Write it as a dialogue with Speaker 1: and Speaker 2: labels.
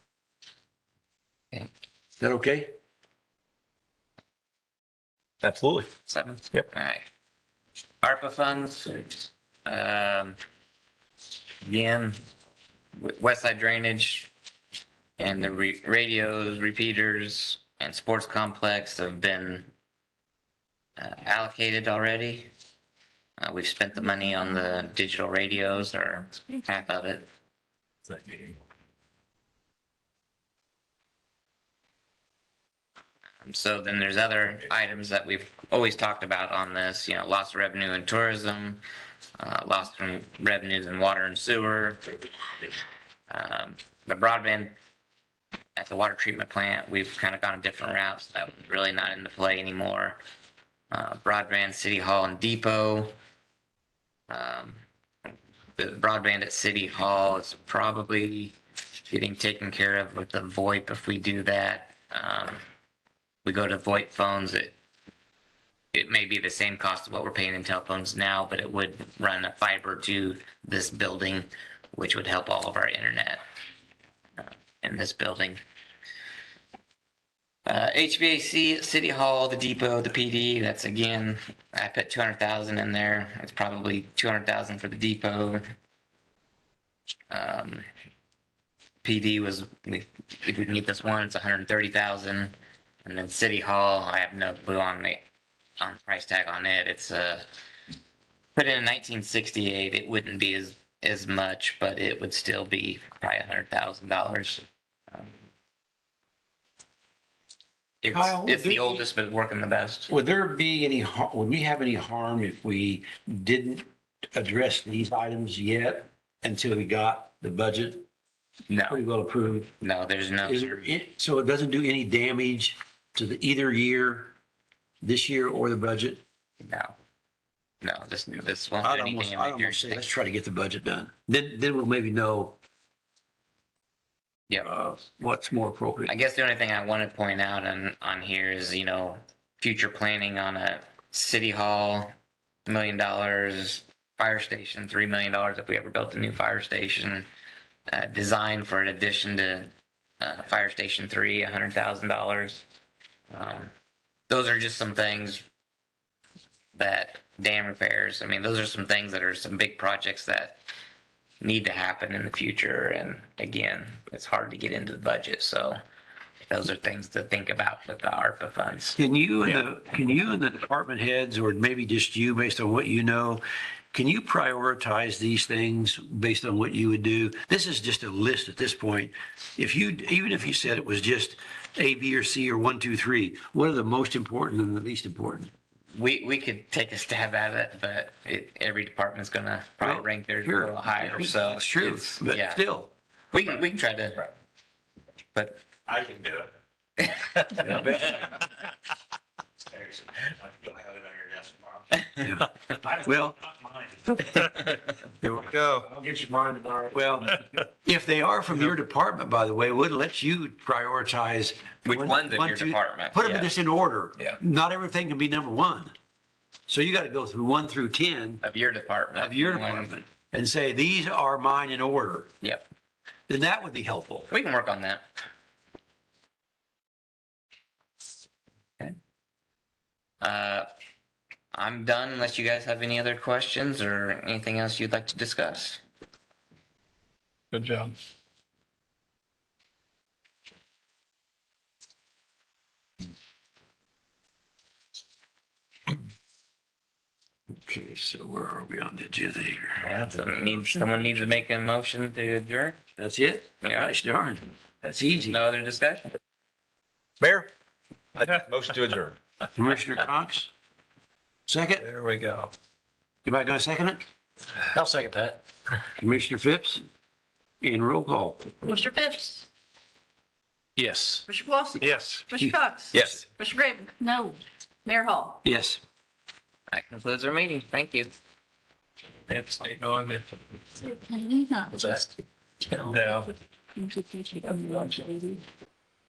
Speaker 1: that okay?
Speaker 2: Absolutely.
Speaker 3: Seventh?
Speaker 2: Yep.
Speaker 3: All right. ARPA funds, um, again, W- West Side Drainage and the re- radios, repeaters and sports complex have been uh, allocated already. Uh, we've spent the money on the digital radios or half of it. Um, So then there's other items that we've always talked about on this, you know, lost revenue in tourism, uh, lost from revenues in water and sewer. Um, the broadband at the water treatment plant, we've kind of gone a different route, so that was really not into play anymore. Uh, broadband, city hall and depot. Um, the broadband at city hall is probably getting taken care of with the VoIP if we do that. Um, we go to VoIP phones, it it may be the same cost of what we're paying in telephones now, but it would run a fiber to this building, which would help all of our internet uh, in this building. Uh, HVAC, City Hall, the depot, the PD, that's again, I put two hundred thousand in there. It's probably two hundred thousand for the depot. Um, PD was, we, if we need this one, it's hundred and thirty thousand. And then City Hall, I have no clue on the, on price tag on it. It's uh put in nineteen sixty-eight, it wouldn't be as, as much, but it would still be probably a hundred thousand dollars. Um, It's,
Speaker 1: Kyle,
Speaker 3: it's
Speaker 1: do
Speaker 3: the
Speaker 1: you-
Speaker 3: oldest, but working the best.
Speaker 1: Would there be any, har- would we have any harm if we didn't address these items yet until we got the budget
Speaker 3: No,
Speaker 1: pretty well approved?
Speaker 3: no, there's no,
Speaker 1: Is there, it- so it doesn't do any damage to the either year, this year or the budget?
Speaker 3: no. No, this, this won't do
Speaker 1: I'd
Speaker 3: any
Speaker 1: almost, I'd almost say, let's
Speaker 3: damage.
Speaker 1: try to get the budget done. Then, then we'll maybe know
Speaker 3: Yep.
Speaker 1: uh, what's more
Speaker 3: I
Speaker 1: appropriate.
Speaker 3: guess the only thing I want to point out on, on here is, you know, future planning on a city hall, million dollars, fire station, three million dollars if we ever built a new fire station. Uh, design for an addition to, uh, fire station three, a hundred thousand dollars. Um, those are just some things that dam repairs, I mean, those are some things that are some big projects that need to happen in the future. And again, it's hard to get into the budget, so those are things to think about with the ARPA funds.
Speaker 1: Can you, and the- can you and the department heads, or maybe just you based on what you know, can you prioritize these things based on what you would do? This is just a list at this point. If you, even if you said it was just A, B, or C, or one, two, three, what are the most important and the least important?
Speaker 3: We, we could take a stab at it, but it, every department's gonna probably
Speaker 1: Right.
Speaker 3: rank theirs a
Speaker 1: Sure.
Speaker 3: little higher, so.
Speaker 1: It's true,
Speaker 3: it's-
Speaker 1: but
Speaker 3: Yeah,
Speaker 1: still.
Speaker 3: we can, we can try to, but
Speaker 4: I can do it. You'll have it on your desk tomorrow.
Speaker 1: yeah. Well,
Speaker 4: Not mine.
Speaker 1: there were-
Speaker 2: Go.
Speaker 4: I'll get you mine tomorrow.
Speaker 1: well, if they are from your department, by the way, would let you prioritize.
Speaker 3: which
Speaker 1: one-
Speaker 3: one's in
Speaker 1: one,
Speaker 3: your
Speaker 1: two-
Speaker 3: department?
Speaker 1: Put them
Speaker 3: yeah,
Speaker 1: just in order.
Speaker 2: Yeah.
Speaker 1: Not everything can be number one. So you got to go through one through 10
Speaker 3: Of your department.
Speaker 1: of your
Speaker 3: One-
Speaker 1: department and say, these are mine in order.
Speaker 3: Yep,
Speaker 1: Then that would be helpful.
Speaker 3: we can work on that. Okay. Uh, I'm done unless you guys have any other questions or anything else you'd like to discuss.
Speaker 2: Good job.
Speaker 1: Okay, so where are we on the agenda here?
Speaker 3: Yeah, so need, someone needs to make a motion to adjourn?
Speaker 1: That's it?
Speaker 3: Yeah.
Speaker 1: Gosh darn, that's easy.
Speaker 3: No other discussion?
Speaker 2: Mayor? Motion to adjourn.
Speaker 1: Commissioner Cox? Second?
Speaker 2: There we go.
Speaker 1: Anybody going to second it?
Speaker 2: I'll second that.
Speaker 1: Commissioner Phipps? And roll call.
Speaker 5: Mr. Phipps,
Speaker 2: Yes.
Speaker 5: Mr. Clausen,
Speaker 2: Yes.
Speaker 5: Mr. Cox.
Speaker 2: Yes.
Speaker 5: Mr. Graven. No. Mayor Hall.
Speaker 1: Yes.
Speaker 3: That concludes our meeting. Thank you.
Speaker 2: It's, you know, I'm in.
Speaker 5: Can we not
Speaker 2: No.
Speaker 5: introduce you to the lady?